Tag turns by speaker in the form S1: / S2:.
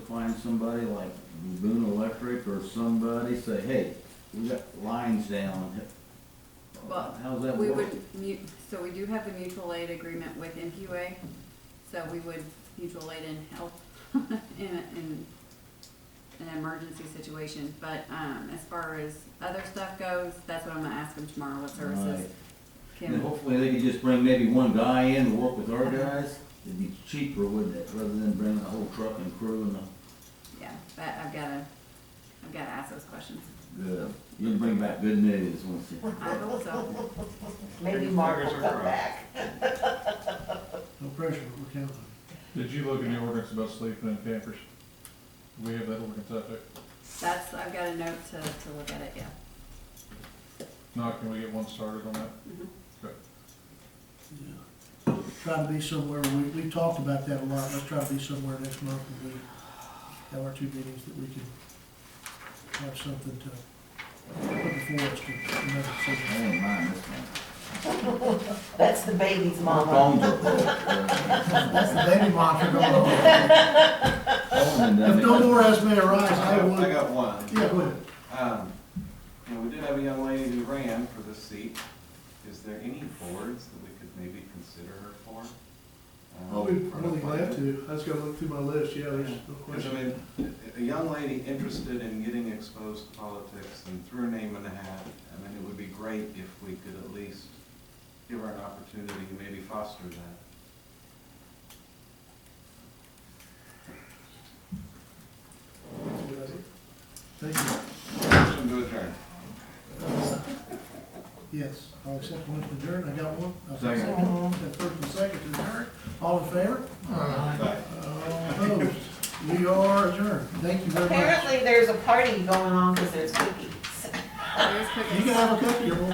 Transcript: S1: find somebody like Boone Electric or somebody, say, hey, we got lines down.
S2: Well,
S1: How's that
S2: We
S1: work?
S2: would, mu- so we do have the mutual aid agreement with NQA, so we would mutual aid and help in, a- in an emergency situation, but, um, as far as other stuff goes, that's what I'm gonna ask them tomorrow, what
S1: Right.
S2: services
S1: And
S2: can,
S1: hopefully they could just bring maybe one guy in to work with our
S2: Uh-huh.
S1: guys. It'd be cheaper, wouldn't it, rather than bringing the whole truck and crew and the,
S2: yeah, but I've gotta, I've gotta ask those questions.
S1: good. You'll bring back good news once you.
S2: I hope so,
S3: Maybe
S4: Fingers
S3: Mark will come
S4: crossed.
S3: back.
S5: No pressure, but we're counting.
S4: Did you look in the ordinance about sleeping in campers? Do We have that ordinance out there.
S2: that's, I've got a note to, to look at it, yeah.
S4: Now, can we get one started on that?
S3: Mm-hmm.
S2: Mhm.
S4: Okay.
S5: Yeah. Try to be somewhere, we, we talked about that a lot, let's try to be somewhere next month when we have our two meetings that we can have something to put before us to, to make a
S1: I
S5: decision.
S1: don't mind this one.
S3: That's the baby's
S1: My
S3: mama.
S1: phone's up there.
S5: That's the baby monitor going on.
S1: Phone and
S5: If no
S1: everything.
S5: more as may arise,
S6: I
S5: I
S6: got- I
S5: would,
S6: got one.
S5: yeah, go ahead.
S6: Um, you know, we did have a young lady who ran for the seat. Is there any boards that we could maybe consider her for? Um,
S5: I'll be
S6: or
S5: really glad
S6: appointment?
S5: to, I just gotta look through my list, yeah, there's no
S6: Because, I
S5: question.
S6: mean, a- a young lady interested in getting exposed to politics and threw her name in the hat, I mean, it would be great if we could at least give her an opportunity to maybe foster that.
S5: Thank you,
S6: Motion to adjourn.
S5: yes, I'll accept one to adjourn, I got one. I'll
S1: Second.
S5: accept one. That first and second to adjourn, all in favor?
S6: Bye.
S5: All opposed, we are adjourned, thank you very much.
S3: Apparently, there's a party going on because there's cookies.
S2: There's
S5: You
S2: cookies.
S5: can have a cookie, everyone.